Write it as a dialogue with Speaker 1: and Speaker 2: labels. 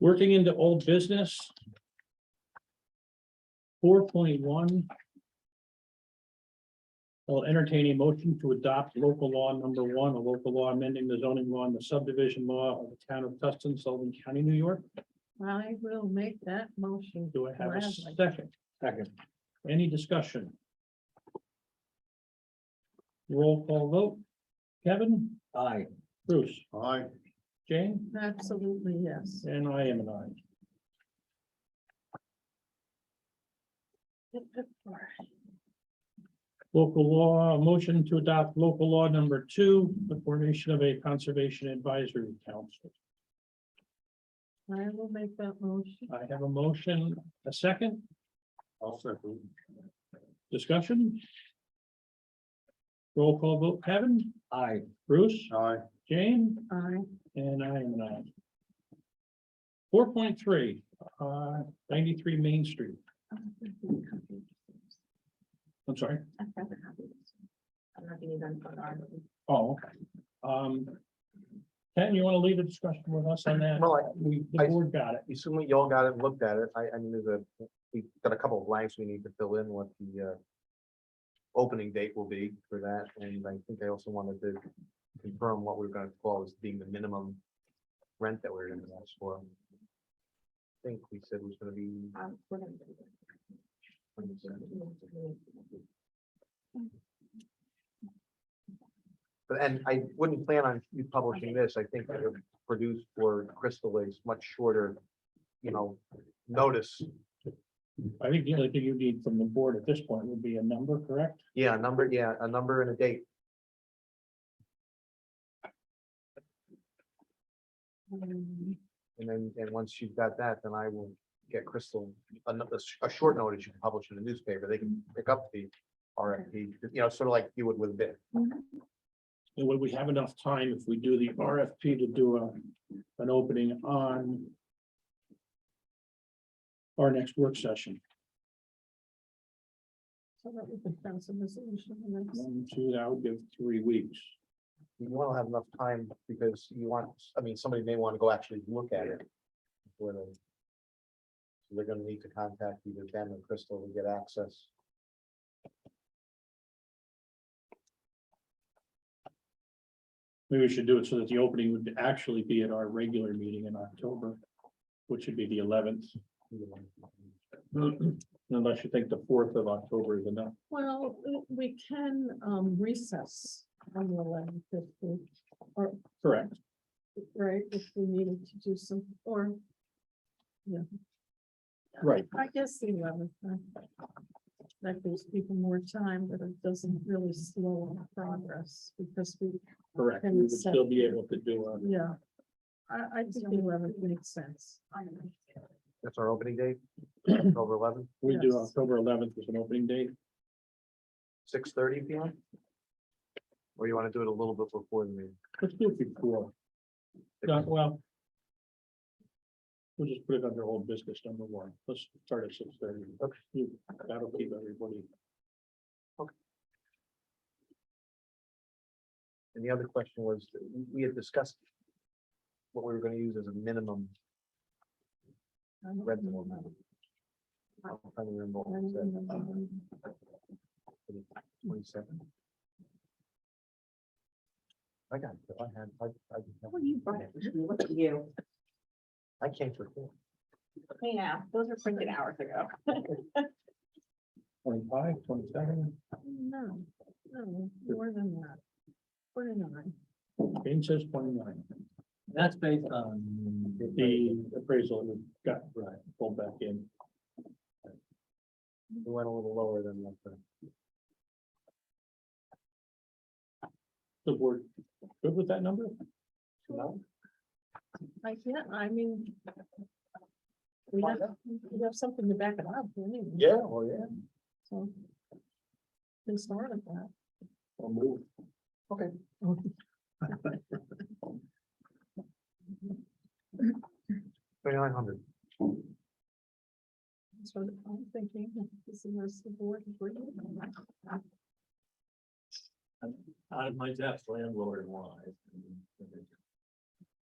Speaker 1: Working into old business. Four point one. I'll entertain a motion to adopt local law number one, a local law amending the zoning law and the subdivision law of the town of Tustin, Sullivan County, New York.
Speaker 2: I will make that motion.
Speaker 1: Do I have a
Speaker 2: Gladly.
Speaker 1: second? Second. Any discussion? Roll call vote. Kevin? Aye. Bruce?
Speaker 3: Aye.
Speaker 1: Jane?
Speaker 2: Absolutely, yes.
Speaker 1: And I am an aye. Local law, motion to adopt local law number two, the formation of a conservation advisory council.
Speaker 2: I will make that motion.
Speaker 1: I have a motion, a second
Speaker 3: I'll second.
Speaker 1: discussion. Roll call vote, Kevin? Aye. Bruce?
Speaker 3: Aye.
Speaker 1: Jane?
Speaker 2: I,
Speaker 1: And I am an aye. Four point three, uh, ninety-three Main Street, I'm sorry.
Speaker 2: I'm not gonna even put on.
Speaker 1: Oh, okay. Um. Ken, you wanna leave the discussion with us on that?
Speaker 4: Well, I,
Speaker 1: We, the
Speaker 4: I-
Speaker 1: board got it.
Speaker 4: assuming y'all got it, looked at it, I, I mean, there's a, we've got a couple of blanks we need to fill in what the, uh. Opening date will be for that, and I think I also wanted to confirm what we're gonna call as being the minimum. Rent that we're gonna ask for. I think we said was gonna be. But and I wouldn't plan on you publishing this. I think it would produce for Crystal is much shorter, you know, notice.
Speaker 1: I think the only thing you need from the board at this point would be a number, correct?
Speaker 4: Yeah, a number, yeah, a number and a date. And then, and once you've got that, then I will get Crystal another, s- a short notice you can publish in the newspaper. They can pick up the RFP, you know, sort of like you would with a bid.
Speaker 1: And would we have enough time if we do the RFP to do a, an opening on our next work session,
Speaker 2: So that we can pass a resolution and that's-
Speaker 1: one, two, that would give three weeks.
Speaker 4: You want to have enough time because you want, I mean, somebody may want to go actually look at it. before they- So They're gonna need to contact either them and Crystal to get access.
Speaker 1: Maybe we should do it so that the opening would actually be at our regular meeting in October, which would be the eleventh, unless you think the fourth of October is enough.
Speaker 2: Well, we- we can um recess on the eleventh if we,
Speaker 1: Correct.
Speaker 2: right, if we needed to do some, or. Yeah.
Speaker 1: Right.
Speaker 2: I guess the eleventh. That gives people more time, but it doesn't really slow our progress because we,
Speaker 1: Correct,
Speaker 2: And
Speaker 1: we would
Speaker 2: so-
Speaker 1: still be able to do a
Speaker 2: yeah. I, I think the eleventh makes sense.
Speaker 4: That's our opening date, October eleventh,
Speaker 1: we do
Speaker 2: Yes.
Speaker 1: October eleventh as an opening date,
Speaker 4: six thirty P M. Or you want to do it a little bit before the meeting?
Speaker 1: let's do it before. Yeah, well. We'll just put it under old business number one, let's start at six thirty.
Speaker 4: Okay.
Speaker 1: That'll keep everybody,
Speaker 4: And the other question was, we- we had discussed what we were gonna use as a minimum
Speaker 2: I don't
Speaker 4: rent.
Speaker 2: know.
Speaker 4: amount. I'm trying to remember
Speaker 2: I
Speaker 4: what we
Speaker 2: don't
Speaker 4: said,
Speaker 2: remember.
Speaker 4: twenty-seven? I got, it, I had, I, I.
Speaker 5: Well, you brought it, look at you.
Speaker 4: I can't recall.
Speaker 5: Yeah, those were printed hours ago.
Speaker 1: twenty-five, twenty-seven,
Speaker 2: No, no, more than that. Forty-nine.
Speaker 1: Jane says twenty-nine,
Speaker 3: That's based on.
Speaker 1: the appraisal we got, right, pulled back in.
Speaker 4: We went a little lower than what the
Speaker 1: The board, good with that number?
Speaker 4: No?
Speaker 2: I can't, I mean. We have, we have something to back it up, we need.
Speaker 4: Yeah, well, yeah.
Speaker 2: So. Can start at that.
Speaker 1: Or move.
Speaker 4: Twenty-nine hundred.
Speaker 2: So I'm thinking, this is the rest of the board. agree with that.
Speaker 3: Out of my depth landlord wise.